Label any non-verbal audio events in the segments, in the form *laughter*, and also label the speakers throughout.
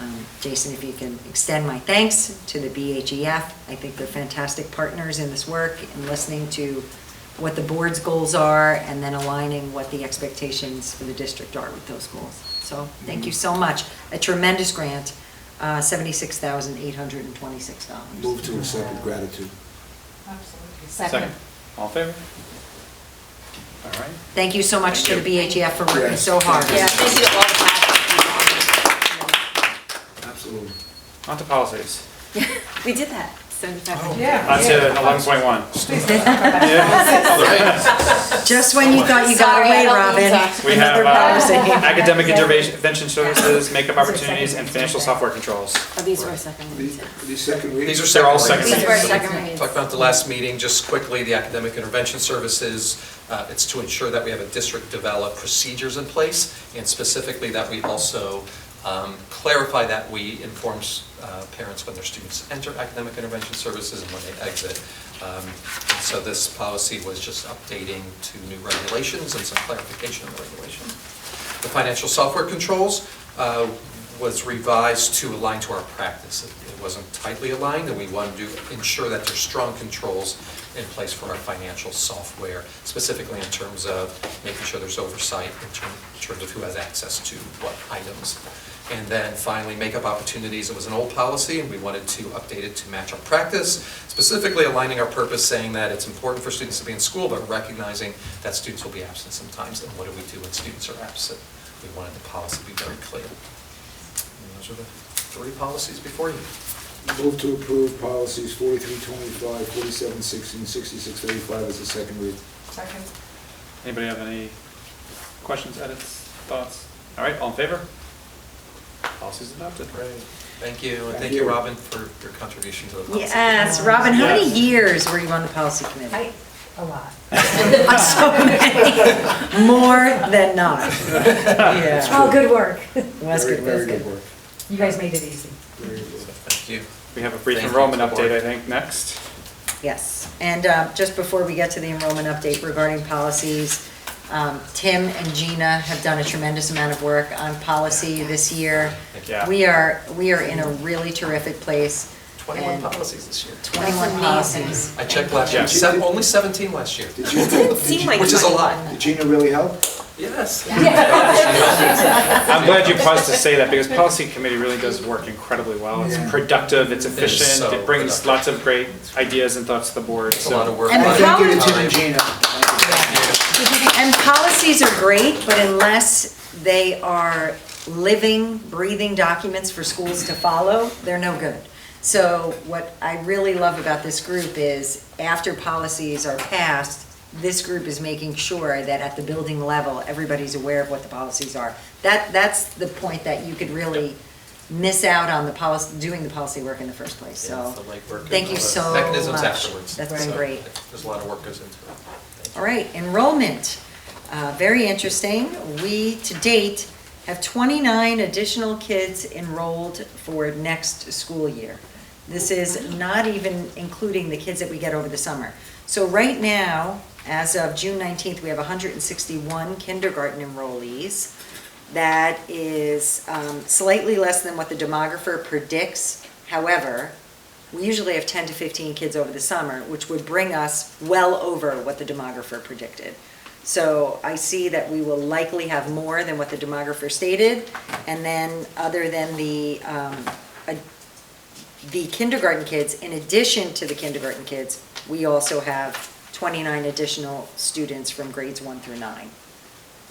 Speaker 1: Um, Jason, if you can extend my thanks to the BHEF. I think they're fantastic partners in this work and listening to what the board's goals are and then aligning what the expectations for the district are with those goals. So thank you
Speaker 2: Mm-hmm.
Speaker 1: so much. A tremendous grant, uh, $76,826.
Speaker 3: Move to accept with gratitude.
Speaker 4: Absolutely.
Speaker 2: Second. All in favor? All right.
Speaker 1: Thank you so much to the
Speaker 2: Thank you.
Speaker 1: BHF for working
Speaker 3: Yes.
Speaker 1: so hard.
Speaker 5: Yeah, thank you all that.
Speaker 3: Absolutely.
Speaker 2: On to policies.
Speaker 5: We did that, seventy-five hundred.
Speaker 4: Oh, Yeah.
Speaker 2: On to eleven point *laughs* one.
Speaker 4: *laughs*
Speaker 1: Just when you thought you got
Speaker 5: Sorry, I
Speaker 1: away,
Speaker 5: don't mean
Speaker 1: Robin.
Speaker 5: to.
Speaker 2: We have
Speaker 1: another policy.
Speaker 2: uh, *laughs* academic intervention services, *laughs* makeup opportunities, and financial software controls.
Speaker 5: Oh, these were second
Speaker 3: These
Speaker 5: ones.
Speaker 3: these second readings?
Speaker 6: These are
Speaker 2: They're all
Speaker 6: second
Speaker 2: second
Speaker 6: reads.
Speaker 5: These were
Speaker 2: reads.
Speaker 5: second reads.
Speaker 6: Talked about the last meeting, just quickly, the academic intervention services, uh, it's to ensure that we have a district develop procedures in place, and specifically that we also um, clarify that we inform uh, parents when their students enter academic intervention services and when they exit. Um, and So this policy was just updating to new regulations and some clarification of regulation. The financial software controls uh, was revised to align to our practice. It- It wasn't tightly aligned, and we wanted to ensure that there's strong controls in place for our financial software, specifically in terms of making sure there's oversight in term- in terms of who has access to what items. And then finally, makeup opportunities, it was an old policy, and we wanted to update it to match our practice, specifically aligning our purpose, saying that it's important for students to be in school, but recognizing that students will be absent sometimes, and what do we do when students are absent? We wanted the policy to be very clear. And those are the three policies before you.
Speaker 3: Move to approve policies 4325, 4716, 6635 as a second read.
Speaker 4: Second.
Speaker 2: Anybody have any questions, edits, thoughts? All right, all in favor? Policies adopted.
Speaker 6: Thank you, and
Speaker 3: Thank
Speaker 6: thank you,
Speaker 3: you.
Speaker 6: Robin, for your contribution to the policy.
Speaker 1: Yes, Robin, how many
Speaker 2: Yes.
Speaker 1: years were you on the policy committee? *laughs*
Speaker 4: I, a *laughs* lot.
Speaker 1: Uh, So many, more than not. Yeah.
Speaker 4: Oh, good work.
Speaker 1: Was
Speaker 3: Very-
Speaker 1: good, was
Speaker 3: Very good
Speaker 1: good.
Speaker 3: work.
Speaker 4: You guys made it easy.
Speaker 3: Very
Speaker 1: *laughs*
Speaker 3: good work.
Speaker 6: Thank you.
Speaker 2: We have a brief
Speaker 6: Thank you,
Speaker 2: enrollment
Speaker 6: support.
Speaker 2: update, I think, next.
Speaker 1: Yes, and uh, just before we get to the enrollment update regarding policies, um, Tim and Gina have done a tremendous amount of work on policy this year.
Speaker 6: Thank
Speaker 2: you. Yeah.
Speaker 1: We are, we are in a really terrific place.
Speaker 6: 21
Speaker 1: and
Speaker 6: policies this year.
Speaker 1: 21 policies.
Speaker 6: I checked last
Speaker 2: Yeah.
Speaker 6: year, Se- only 17 last year,
Speaker 3: Did you-
Speaker 5: Didn't seem like
Speaker 6: which is a lot.
Speaker 5: 21.
Speaker 3: Did Gina really help?
Speaker 1: *laughs*
Speaker 6: Yes.
Speaker 2: I'm glad you paused to say that because policy committee really does work incredibly well. It's
Speaker 3: Yeah.
Speaker 2: productive, it's
Speaker 6: It is
Speaker 2: efficient,
Speaker 6: so
Speaker 2: it brings
Speaker 6: productive.
Speaker 2: lots of great ideas and thoughts to the board,
Speaker 6: It's
Speaker 2: so.
Speaker 6: a lot of work.
Speaker 1: And
Speaker 6: a lot of
Speaker 1: how
Speaker 3: Thank you to
Speaker 6: time.
Speaker 3: Tim and Gina. Thank you.
Speaker 1: And policies are great, but unless they are living, breathing documents for schools to follow, they're no good. So what I really love about this group is after policies are passed, this group is making sure that at the building level, everybody's aware of what the policies are. That, that's the point that you could really miss out on the policy, doing the policy work in the first place,
Speaker 6: Yeah,
Speaker 1: so.
Speaker 6: it's the legwork and
Speaker 1: Thank you
Speaker 6: all the
Speaker 1: so
Speaker 6: Mechanisms
Speaker 1: much.
Speaker 6: afterwards.
Speaker 1: That's been
Speaker 6: So,
Speaker 1: great.
Speaker 6: There's a lot of work goes into it. Thank you.
Speaker 1: All right, enrollment, Uh, very interesting. We, to date, have 29 additional kids enrolled for next school year. This is not even including the kids that we get over the summer. So right now, as of June 19th, we have 161 kindergarten enrollees. That is um, slightly less than what the demographer predicts. However, we usually have 10 to 15 kids over the summer, which would bring us well over what the demographer predicted. So I see that we will likely have more than what the demographer stated. And then, other than the, um, a- the kindergarten kids, in addition to the kindergarten kids, we also have 29 additional students from grades one through nine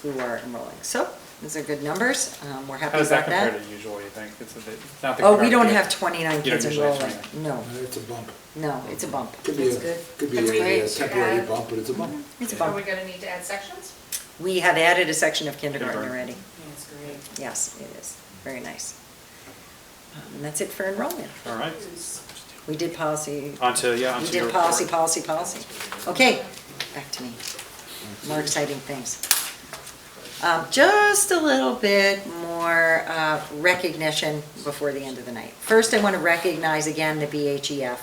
Speaker 1: who are enrolling. So those are good numbers. Um, We're happy
Speaker 2: How does that
Speaker 1: about
Speaker 2: compare
Speaker 1: that.
Speaker 2: to usual, you think? It's a bit- not the
Speaker 1: Oh, we don't
Speaker 2: comparative.
Speaker 1: have 29
Speaker 2: You don't
Speaker 1: kids
Speaker 2: usually have
Speaker 1: enrolling.
Speaker 2: 29.
Speaker 1: No,
Speaker 3: It's a bump.
Speaker 1: no, Oh. it's a bump.
Speaker 3: Could be,
Speaker 1: It's
Speaker 3: a-
Speaker 1: good.
Speaker 3: could be
Speaker 1: That's
Speaker 3: a- a
Speaker 1: great.
Speaker 3: temporary bump, but it's a bump.
Speaker 1: It's a
Speaker 4: Are we
Speaker 1: bump.
Speaker 4: gonna need to add sections?
Speaker 1: We have added a section of kindergarten
Speaker 2: Kindergarten.
Speaker 1: already.
Speaker 5: That's great.
Speaker 1: Yes, it is. Very nice. Um, And that's it for enrollment.
Speaker 2: All right,
Speaker 1: We did policy.
Speaker 2: on to, yeah, on
Speaker 1: We
Speaker 2: to your
Speaker 1: did
Speaker 2: report.
Speaker 1: policy, policy, policy. Okay, back to me. More exciting things. Um, Just a little bit more uh, recognition before the end of the night. First, I want to recognize again the BHEF.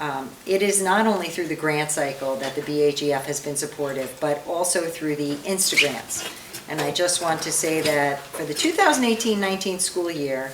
Speaker 1: Um, It is not only through the grant cycle that the BHEF has been supportive, but also through the Instagrants. And I just want to say that for the 2018-19 school year,